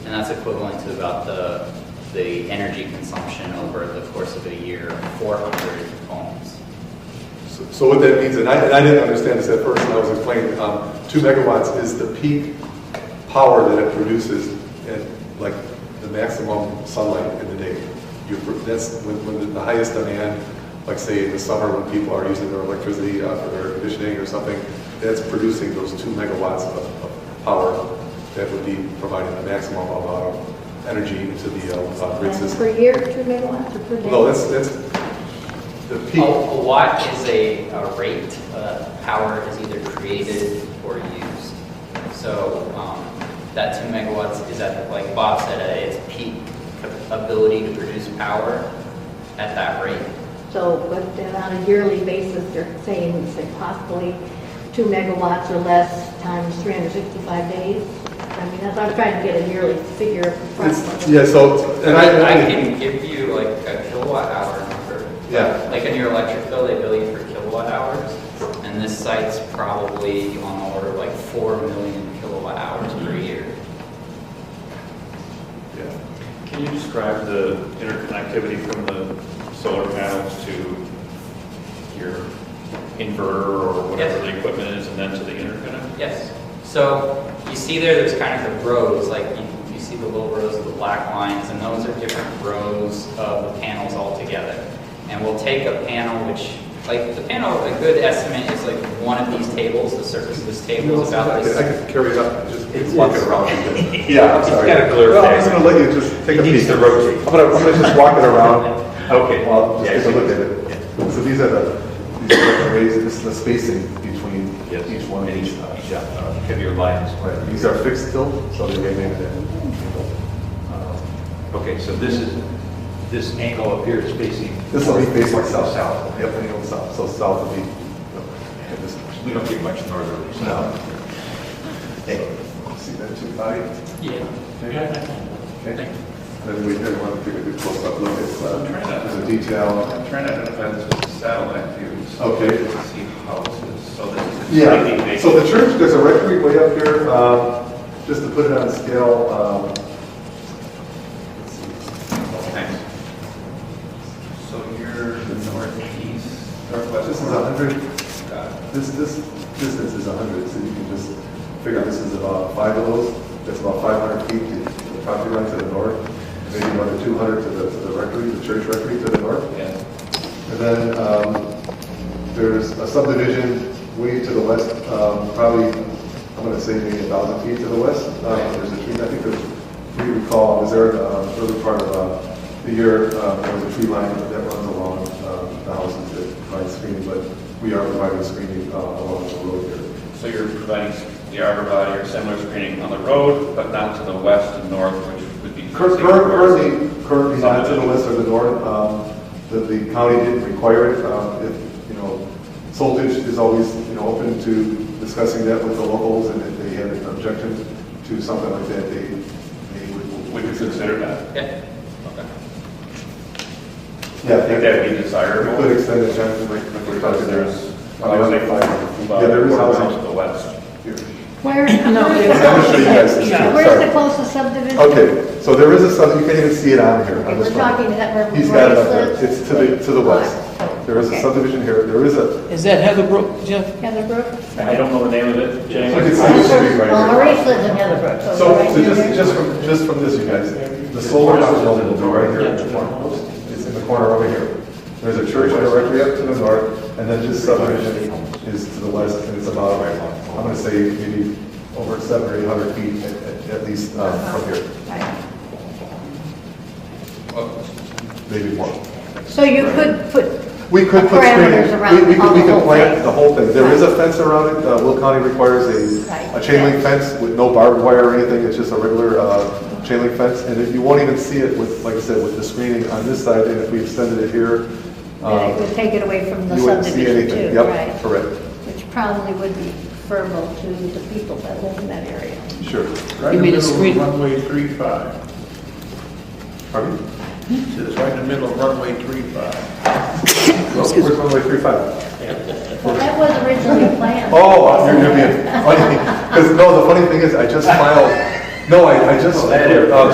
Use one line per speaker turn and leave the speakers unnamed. And that's equivalent to about the, the energy consumption over the course of a year, 400 homes.
So- So what that means, and I, and I didn't understand this at first, and I was explaining, um, two megawatts is the peak power that it produces at, like, the maximum sunlight in the day. You, pro- that's when, when the highest demand, like, say, in the summer, when people are using their electricity uh, for their air conditioning or something, that's producing those two megawatts of, of power that would be providing the maximum amount of energy into the, uh, uh, grid
Per
system.
year, two megawatts or per day?
No, that's, that's the
A
peak.
a watt Oh, is a, a rate, uh, power is either created or used. So, um, that two megawatts is at, like Bob said, at its peak ability to produce power at that rate.
So, but then on a yearly basis, they're saying, it's like possibly two megawatts or less times 365 days? I mean, that's, I'm trying to get a yearly figure.
It's-
approximately.
Yeah, so, and I,
I can give you like a kilowatt hour number.
Yeah.
Like in your electric bill, they bill you for kilowatt hours, and this site's probably on the order of like 4 million kilowatt hours per year.
yeah.
Can you describe the interconnectivity from the solar panels to your inverter or whatever
Yes.
the equipment is, and then to the interconnect?
Yes. So you see there, there's kind of the rows, like you, you see the little rows of the black lines, and those are different rows of the panels altogether. And we'll take a panel which, like, the panel, a good estimate is like one of these tables, the surface of this table is about
I could- I
this.
could carry it up, and just
It's-
walk it
it's-
around.
Yeah, it's kinda clear.
Well, I'm just gonna let you just take a
It needs
piece.
to rotate.
I'm gonna, I'm gonna just walk it around,
Okay.
well,
Yeah,
just take a
so-
look at it. So these are the, these are the arrays, this is the spacing between
Yes.
each one of each. uh,
Each, uh, heavier lines.
Right, these are fixed still, so they may have Uh, been.
Okay, so this is, this angle up here is facing.
This will be facing south.
South.
Yep, and it'll south, so south will be, and this,
We don't get much northerly. so-
No. see that too, Bobby?
Yeah.
Okay. Then we had one, take a good close-up look at, uh, the detail.
I'm trying to identify this as satellite view. so
Okay.
you can See houses, so this is.
Yeah, so the church, there's a rectory way up here, um, just to put it on scale, um, let's see.
Thanks. So you're northeast, uh, northwest.
This is a hundred,
Got it.
this, this distance is a hundred, so you can just figure this is about five of those, that's about five hundred feet to the property line to the north, maybe another two hundred to the, to the rectory, the church rectory to the north.
Yeah.
And then um, there's a subdivision way to the west, um, probably, I'm going to say maybe a thousand feet to the west. Um, There's a tree, I think there's, if you recall, was there uh, early part of uh, the year, uh, there was a tree line that runs along um, the houses that provides screening, but we are providing screening uh, along the road here.
So you're providing the arborvitae or similar screening on the road, but not to the west and north, which would be.
Cur- cur- Currently, currently not to the west or the north, um, the, the county didn't require it, um, if, you know, Soltage is always, you know, open to discussing that with the locals, and if they had an objection to something like that, they, they would.
Would you consider that?
Okay.
Okay.
Yeah.
I think that would be desirable.
We could extend the time, like, like we're
Because
talking
there's,
there's.
I would say,
Yeah, there is
to
housing
the west.
here.
Where,
No,
where's
there's-
I'm gonna show you guys this
the-
too,
where's
sorry.
the closest subdivision?
Okay, so there is a sub, you can't even see it on here.
Okay,
on this
We're
one.
talking that where.
He's got it up there,
Royce lives?
it's to the, to the west. There is a
Okay.
subdivision here, there is a,
Is that Heatherbrook, Jeff?
Heatherbrook?
I don't know the name of it,
So you
James.
can see the street right
Well,
here.
Maurice lives in Heatherbrook, so.
So,
right
so
near
just,
there.
just from, just from this, you guys, the solar house building will be right here in the corner. It's in the corner over here. There's a church directly up to the north, and then this subdivision is to the west, and it's about, I'm gonna say maybe over seven or eight hundred feet at- at, at least, uh, from here,
Right.
maybe more.
So you could put
We could put screening,
Parameters around
we, we could, we
the
could
whole
plant
thing.
the whole thing. There is a fence around it, uh, Will County requires a, a
Right.
chain link fence with no barbed wire or anything, it's just a regular, uh, chain link fence. And if you won't even see it with, like I said, with the screening on this side, and if we extended it here,
And it
um,
would take it away from the
you wouldn't see
subdivision
anything.
too,
Yep,
right?
correct,
Which probably would be preferable to the people that live in that area.
sure.
You mean a screen?
Runway three five.
Pardon me?
It's right in the middle of runway three five.
Where's runway three five? uh,
Well, that was originally planned.
Oh, you're, you're being funny, because, no, the funny thing is, I just filed,
No, I, I just.
Oh, that area.
uh,